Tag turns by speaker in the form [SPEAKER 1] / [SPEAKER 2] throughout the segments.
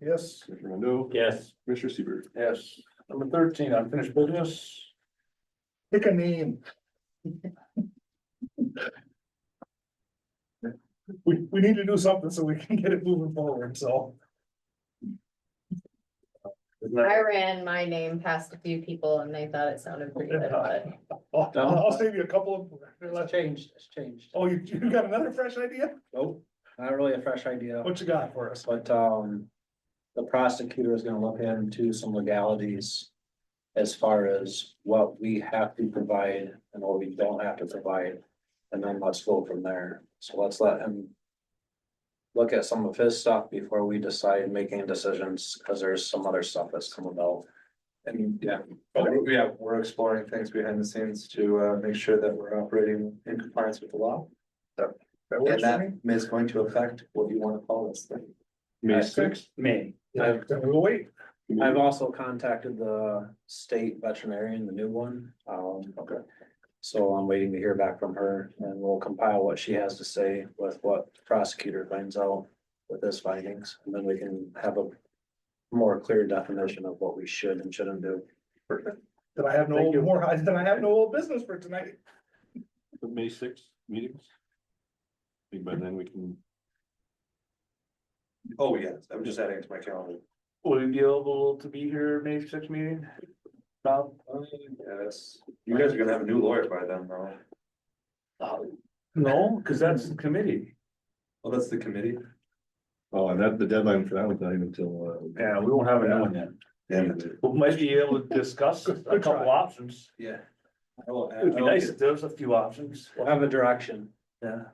[SPEAKER 1] Yes.
[SPEAKER 2] Commissioner Rondo,
[SPEAKER 3] Yes.
[SPEAKER 2] Commissioner Seaver.
[SPEAKER 3] Yes. Number thirteen, unfinished business.
[SPEAKER 1] Pick a name. We, we need to do something so we can get it moving forward, so.
[SPEAKER 3] Isn't that-
[SPEAKER 4] I ran my name past a few people and they thought it sounded pretty good, but
[SPEAKER 1] I'll, I'll save you a couple
[SPEAKER 5] It's
[SPEAKER 1] of.
[SPEAKER 5] changed, it's changed.
[SPEAKER 1] Oh, you, you got another fresh idea?
[SPEAKER 5] Nope, not really a fresh idea,
[SPEAKER 1] What you got for us?
[SPEAKER 5] but, um, the prosecutor is gonna look into some legalities as far as what we have to provide and what we don't have to provide, and then let's go from there. So let's let him look at some of his stuff before we decide making decisions, because there's some other stuff that's come about. And, yeah, yeah, we're exploring things behind the scenes to, uh, make sure that we're operating in compliance with the law.
[SPEAKER 1] That
[SPEAKER 5] And
[SPEAKER 1] works for me?
[SPEAKER 5] that is going to affect what you wanna call this thing.
[SPEAKER 2] May
[SPEAKER 5] I
[SPEAKER 2] sixth.
[SPEAKER 3] Me.
[SPEAKER 1] Yeah, then we'll wait.
[SPEAKER 5] I've also contacted the state veterinarian, the new one, um. Okay. So I'm waiting to hear back from her and we'll compile what she has to say with what the prosecutor finds out with his findings, and then we can have a more clear definition of what we should and shouldn't do.
[SPEAKER 1] Did I have no
[SPEAKER 2] Thank you.
[SPEAKER 1] more, did I have no old business for tonight?
[SPEAKER 2] The May sixth meetings. I think by then we can,
[SPEAKER 5] Oh, yes, I'm just adding to my calendar.
[SPEAKER 3] Will you be able to be here May sixth meeting? Bob?
[SPEAKER 5] Uh, Yes, you guys are gonna have a new lawyer by then, though.
[SPEAKER 3] No, because that's the committee.
[SPEAKER 5] Well, that's the committee.
[SPEAKER 2] oh, and that, the deadline for that was not even until, uh,
[SPEAKER 3] Yeah, we won't have another one yet.
[SPEAKER 5] Damn it.
[SPEAKER 3] We might be able to discuss a
[SPEAKER 1] Good try.
[SPEAKER 3] couple options.
[SPEAKER 5] Yeah.
[SPEAKER 3] It'd be nice if there was a few options.
[SPEAKER 5] We'll have a direction.
[SPEAKER 3] Yeah.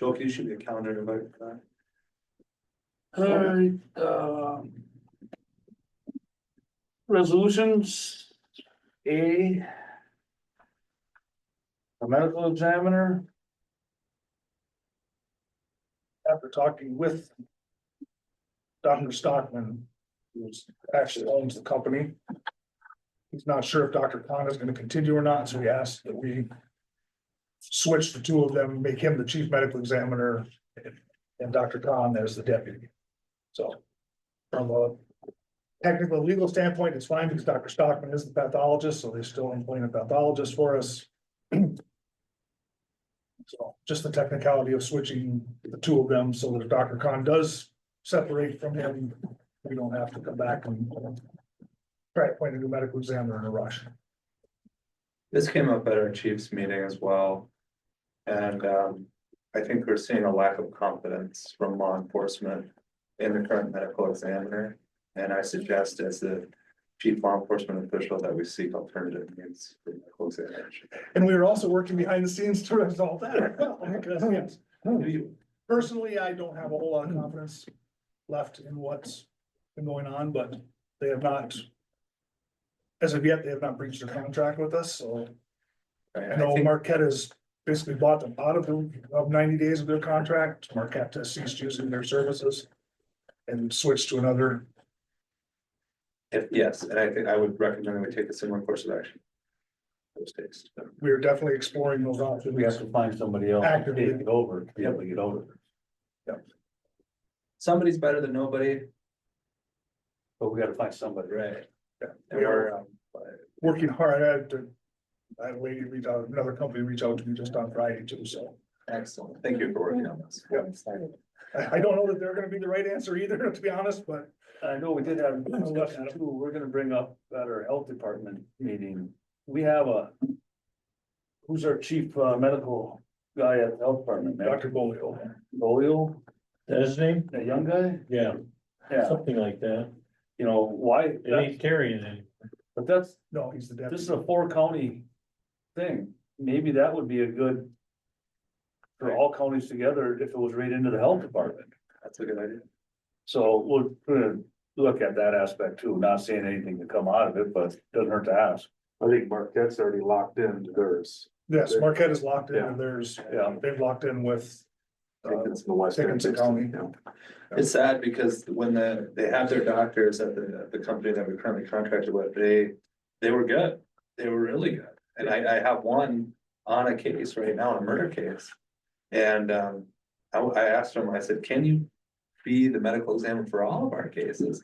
[SPEAKER 5] Joel, you should be a calendar invite for that.
[SPEAKER 3] Alright,
[SPEAKER 1] uh,
[SPEAKER 3] um. Resolutions, A. A medical examiner,
[SPEAKER 1] after talking with Dr. Stockman, who's actually owns the company. He's not sure if Dr. Khan is gonna continue or not, so he asked that we switch the two of them, make him the chief medical examiner and Dr. Khan as the deputy. So from a technical legal standpoint, it's fine because Dr. Stockman is the pathologist, so they still employing a pathologist for us. So just the technicality of switching the two of them so that if Dr. Khan does separate from him, we don't have to come back and try to appoint a new medical examiner in a rush.
[SPEAKER 6] This came up at our chief's meeting as well. And um, I think we're seeing a lack of confidence from law enforcement in the current medical examiner. And I suggest as the chief law enforcement official that we seek alternative means for medical examination.
[SPEAKER 1] And we are also working behind the scenes to resolve that. as well, because, yes. Personally, I don't have a whole lot of confidence left in what's been going on, but they have not. As of yet, they have not breached their contract with us, so I
[SPEAKER 6] And I
[SPEAKER 1] know
[SPEAKER 6] think
[SPEAKER 1] Marquette has basically bought them out of the, of ninety days of their contract. Marquette has ceased using their services. And switched to another,
[SPEAKER 6] if- yes, and I think I would recommend that we take a similar course of action. Those days.
[SPEAKER 1] we are definitely exploring those options.
[SPEAKER 3] we have to find somebody else to
[SPEAKER 1] Actively.
[SPEAKER 3] take it over, to be able to get over. it.
[SPEAKER 6] Somebody's better than nobody.
[SPEAKER 3] But we gotta find somebody.
[SPEAKER 6] Right. And
[SPEAKER 1] We are
[SPEAKER 6] we're, um,
[SPEAKER 1] working hard at to. I had a lady reach out, another company reach out to me just on Friday too, so
[SPEAKER 6] excellent. Thank you for working on this.
[SPEAKER 1] I, I don't know that they're gonna be the right answer either, to be honest, but.
[SPEAKER 3] I know we did have a discussion too, we're gonna bring up at our health department meeting, we have a. Who's our chief uh, medical guy at the health department?
[SPEAKER 1] Dr. Bolio,
[SPEAKER 3] Bolio,
[SPEAKER 7] That's his name?
[SPEAKER 3] that young guy,
[SPEAKER 7] Yeah,
[SPEAKER 3] yeah,
[SPEAKER 7] something like that.
[SPEAKER 3] you know, why,
[SPEAKER 7] It ain't carrying any.
[SPEAKER 3] but that's,
[SPEAKER 1] no, he's the
[SPEAKER 3] this is
[SPEAKER 1] deputy.
[SPEAKER 3] a four county thing, maybe that would be a good. For all counties together, if it was right into the health department,
[SPEAKER 6] That's a good idea.
[SPEAKER 3] so we're gonna look at that aspect too, not saying anything to come out of it, but doesn't hurt to ask.
[SPEAKER 8] I think Marquette's already locked into theirs.
[SPEAKER 1] Yes, Marquette is locked in,
[SPEAKER 8] Yeah.
[SPEAKER 1] and there's,
[SPEAKER 3] Yeah.
[SPEAKER 1] they've locked in with.
[SPEAKER 8] I
[SPEAKER 1] uh,
[SPEAKER 6] Um,
[SPEAKER 8] think it's in the West. End.
[SPEAKER 1] Dickinson County.
[SPEAKER 8] Yeah.
[SPEAKER 6] It's sad because when the, they have their doctors at the, at the company that we currently contracted with, they, they were good. They were really good. And I, I have one on a case right now, a murder case. And, um, I, I asked him, I said, can you be the medical examiner for all of our cases.